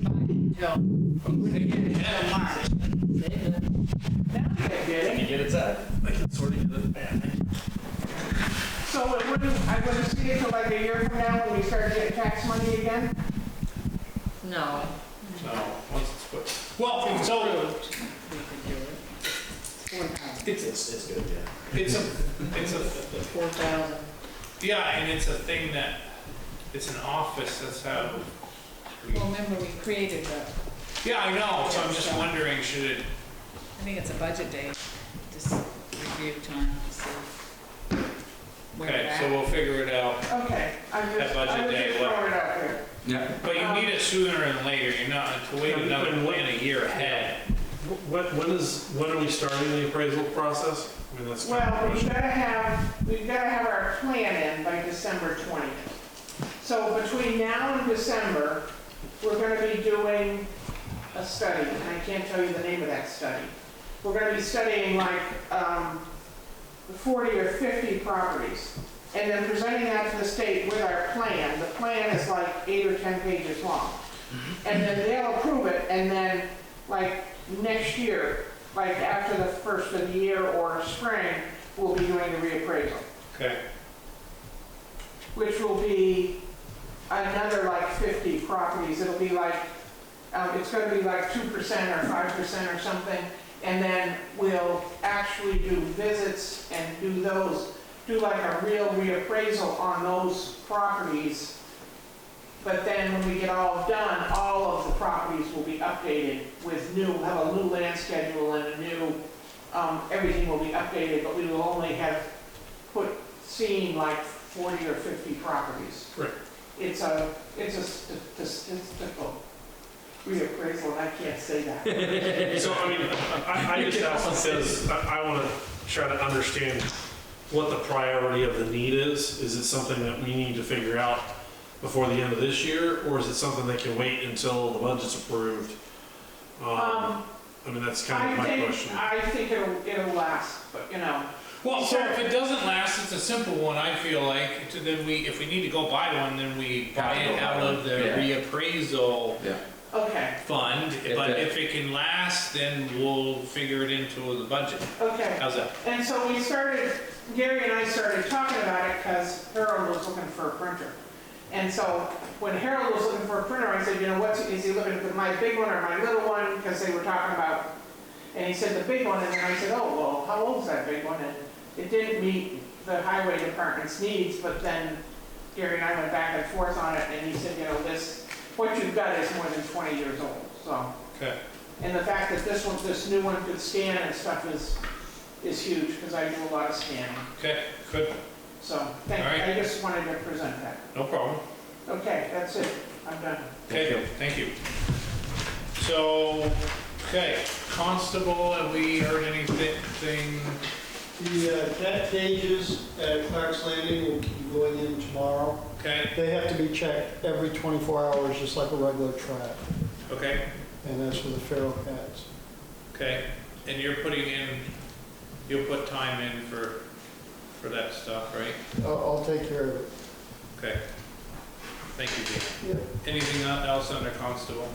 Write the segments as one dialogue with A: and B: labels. A: until they get it done March. They done. Now they get it.
B: get it set. I can sort of get it back.
A: So it wouldn't, I wouldn't see it till like a year from now when we start getting tax money again?
C: No,
B: No, once it's put, well, so
C: we could do it. Four thousand.
B: it's, it's, it's good, yeah.
D: It's a, it's a,
C: Four thousand.
D: yeah, and it's a thing that, it's an office, that's how. we-
C: Well, remember, we created the,
D: Yeah, I know, so I'm just wondering, should it,
C: I think it's a budget day, just review time, to see where we're
D: okay, so
C: at.
D: we'll figure it out.
A: Okay, I'm just,
D: That budget
A: I was
D: day,
A: just
D: what?
A: throwing it out here.
E: Yeah.
D: But you need it sooner than later, you're not, to wait another plan a year ahead.
B: When, when is, when are we starting the appraisal process? I mean, that's kind of
A: Well,
B: a
A: we've
B: question.
A: gotta have, we've gotta have our plan in by December 20th. So between now and December, we're gonna be doing a study, and I can't tell you the name of that study. We're gonna be studying like um, 40 or 50 properties, and then presenting that to the state with our plan. The plan is like eight or 10 pages long. And then they'll approve it, and then like next year, like after the first of the year or spring, we'll be doing the reappraisal,
D: Okay,
A: which will be another like 50 properties. It'll be like, um, it's gonna be like 2% or 5% or something. And then we'll actually do visits and do those, do like a real reappraisal on those properties. But then when we get all done, all of the properties will be updated with new, we'll have a new land schedule and a new, um, everything will be updated, but we will only have put, seen like 40 or 50 properties.
B: Right.
A: It's a, it's a st- st- statistical reappraisal, and I can't say that.
B: So, I mean, I, I just ask because I, I want to try to understand what the priority of the need is. Is it something that we need to figure out before the end of this year, or is it something that can wait until the budget's approved? Um,
A: Um,
B: I mean, that's kind of
A: I
B: my
A: think,
B: question.
A: I think it'll, it'll last, but, you know,
D: well, so if it doesn't last, it's a simple one, I feel like, to- then we, if we need to go buy one, then we buy it out of the
E: Yeah.
D: reappraisal
E: Yeah.
A: okay,
D: fund.
E: If
D: But
E: it-
D: if it can last, then we'll figure it into the budget.
A: okay.
D: How's that?
A: And so we started, Gary and I started talking about it because Harold was looking for a printer. And so when Harold was looking for a printer, I said, you know, what's, is he looking for my big one or my little one? Because they were talking about, and he said the big one, and then I said, oh, well, how old's that big one? And it didn't meet the highway department's needs, but then Gary and I went back and forth on it, and he said, you know, this, what you've got is more than 20 years old, so.
D: Okay.
A: And the fact that this one, this new one could scan and stuff is, is huge, because I do a lot of scanning.
D: Okay, good,
A: So, thank,
D: All right.
A: I just wanted to present that.
D: no problem.
A: Okay, that's it, I'm done.
E: Thank
D: Okay, thank you. So, okay, constable, have we heard anything?
F: The uh, cat cages at Clark's Landing will be going in tomorrow.
D: Okay,
F: They have to be checked every 24 hours, just like a regular trap,
D: okay,
F: and that's for the feral cats.
D: okay. And you're putting in, you'll put time in for, for that stuff, right?
F: I'll, I'll take care of it.
D: Okay. Thank you, Dean.
F: Yeah.
D: Anything else under constable?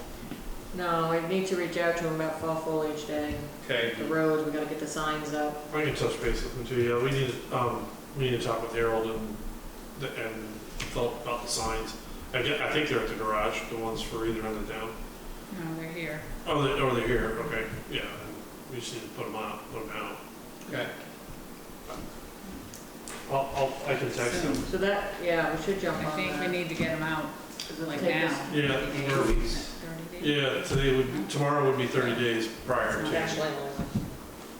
C: No, I need to reach out to him about fall foliage day,
D: Okay,
C: the roads, we gotta get the signs up.
B: I can touch base with them too, yeah, we need, um, we need to talk with Harold and, the- and Philip about the signs. I get, I think they're at the garage, the ones for either end of town.
C: No, they're here.
B: Oh, they, oh, they're here, okay, yeah, we just need to put them out, put them out.
D: okay,
B: I'll, I'll, I can text them.
C: So that, yeah, we should jump
G: I
C: on that.
G: think we need to get them out, like
C: Take
G: now.
C: us-
B: Yeah, we're-
G: Thirty days?
B: yeah, today would, tomorrow would be thirty days prior
C: Not
B: to,
C: actually,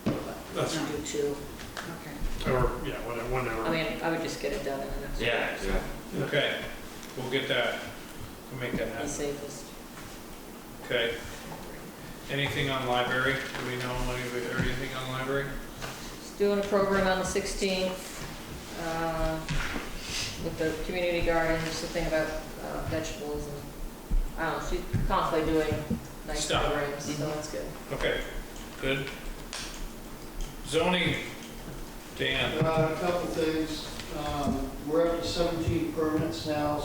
C: I
B: that's,
C: would do two.
G: Okay.
B: or, yeah, whatever,
C: I
B: whenever.
C: mean, I would just get it done in the next.
E: Yeah.
D: okay. We'll get that, we'll make that
C: Be
D: happen.
C: safest.
D: Okay. Anything on library? Do we know any- or anything on library?
C: Just doing a program on the 16th uh, with the community garden, just a thing about uh, vegetables and, I don't know, she's constantly doing nice
D: Stuff.
C: programs, so that's good.
D: Okay, good. Zoning, Dan.
F: Uh, A couple things, Um, we're up to 17 permits now,